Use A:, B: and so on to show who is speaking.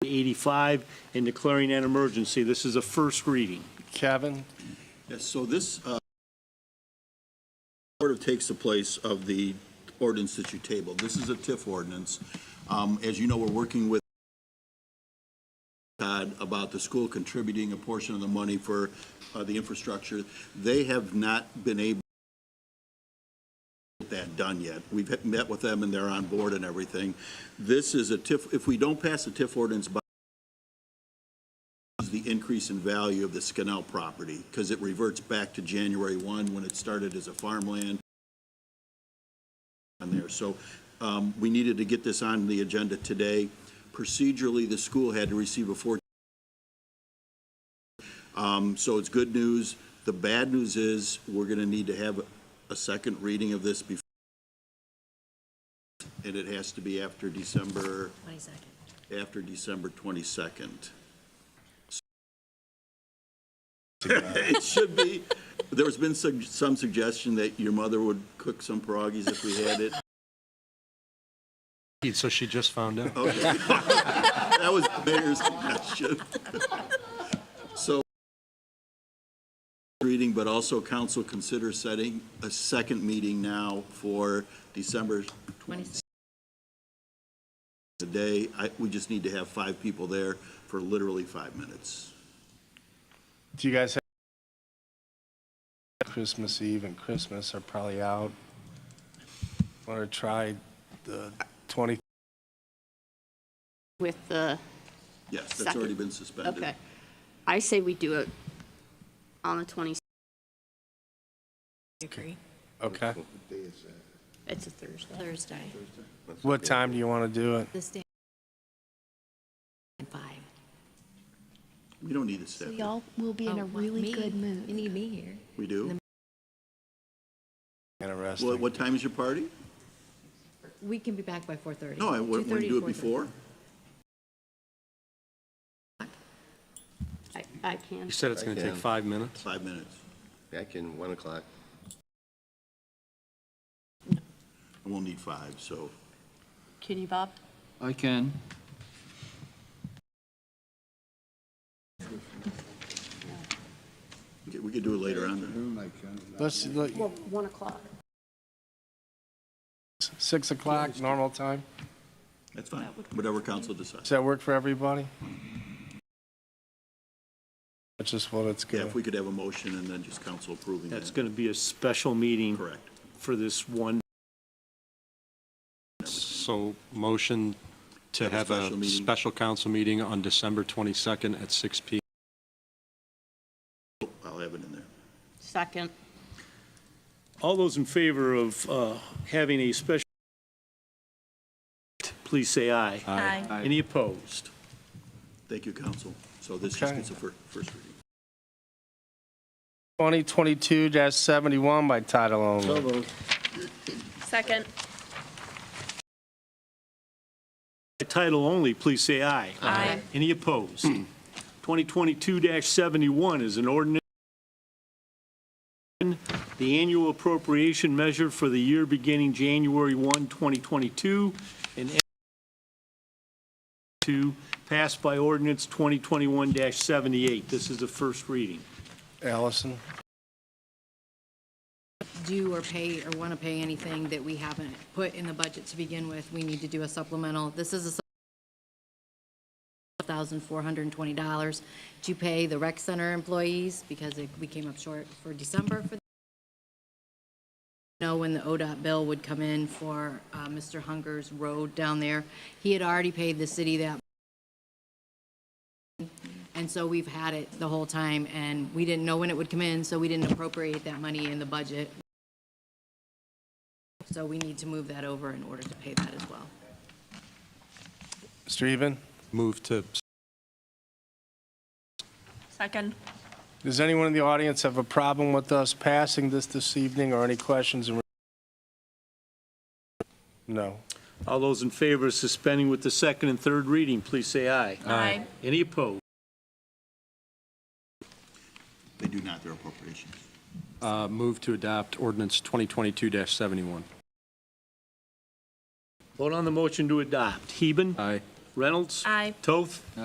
A: 85 and declaring an emergency. This is a first reading.
B: Kevin?
C: Yes, so this uh, sort of takes the place of the ordinance that you tabled. This is a TIF ordinance. Um, As you know, we're working with Todd about the school contributing a portion of the money for uh, the infrastructure. They have not been able to get that done yet. We've met with them and they're on board and everything. This is a TIF, if we don't pass the TIF ordinance by is the increase in value of the Scanel property, because it reverts back to January 1, when it started as a farmland on there. So um, we needed to get this on the agenda today. Procedurally, the school had to receive a 14. Um, So it's good news. The bad news is, we're going to need to have a second reading of this before, and it has to be after December,
D: 22nd.
C: after December 22nd. It should be, there's been sug- some suggestion that your mother would cook some pierogies if we had it.
B: So she just found out.
C: Okay. That was the mayor's suggestion. So, reading, but also council consider setting a second meeting now for December 26th. Today, I, we just need to have five people there for literally five minutes.
B: Do you guys have Christmas Eve and Christmas are probably out. Want to try the 20,
E: with the,
C: Yes, that's
E: Second.
C: already been suspended.
E: okay. I say we do it on the 20,
D: Agree.
B: okay?
E: it's a Thursday.
D: Thursday,
B: What time do you want to do it?
D: this day. And five.
C: We don't need a staff.
F: Y'all will be in
D: Oh,
F: a
D: what,
F: really
D: me?
F: good
D: You
F: mood.
D: need me here.
C: We do? What,
B: Interesting.
C: what time is your party?
D: We can be back by 4:30.
C: No, I want to
D: 2:30,
C: do it
D: 4:30.
C: before.
E: I, I can.
G: You said it's going to take five minutes?
C: Five minutes.
H: Back in 1 o'clock.
C: And we'll need five, so.
E: Can you, Bob?
I: I can.
C: Okay, We could do it later on then.
B: Let's, look,
E: Well, 1 o'clock.
B: 6 o'clock, normal time?
C: That's fine. Whatever council decides.
B: Does that work for everybody? That's just what it's
C: Yeah,
B: going
C: if we could have a motion and then just council approving that.
A: That's going to be a special meeting
C: Correct.
A: for this one.
G: So motion to
C: Have a
G: have
C: special
G: a
C: meeting.
G: special council meeting on December 22nd at 6 p.m.
C: I'll have it in there.
E: Second.
A: All those in favor of uh, having a special, please say aye.
G: Aye.
A: Any opposed?
C: Thank you, council. So this just
B: Okay.
C: gets a fir- first reading.
B: 2022-71 by title only.
E: Second.
A: By title only, please say aye.
E: Aye.
A: Any opposed? 2022-71 is an ordinance, the annual appropriation measure for the year beginning January 1, 2022, and end to pass by ordinance 2021-78. This is the first reading.
B: Allison?
D: Do or pay or want to pay anything that we haven't put in the budget to begin with, we need to do a supplemental. This is a $1,420 to pay the rec center employees because it- we came up short for December for know when the ODOT bill would come in for uh, Mr. Hunger's road down there. He had already paid the city that. And so we've had it the whole time, and we didn't know when it would come in, so we didn't appropriate that money in the budget. So we need to move that over in order to pay that as well.
B: Streven?
G: Move to
E: Second.
B: Does anyone in the audience have a problem with us passing this this evening or any questions? in- No.
A: All those in favor of suspending with the second and third reading, please say aye.
E: Aye.
A: Any opposed?
C: They do not, their appropriations.
G: uh, move to adopt ordinance 2022-71.
A: Vote on the motion to adopt. Heben?
G: Aye.
A: Reynolds? Aye. Toth?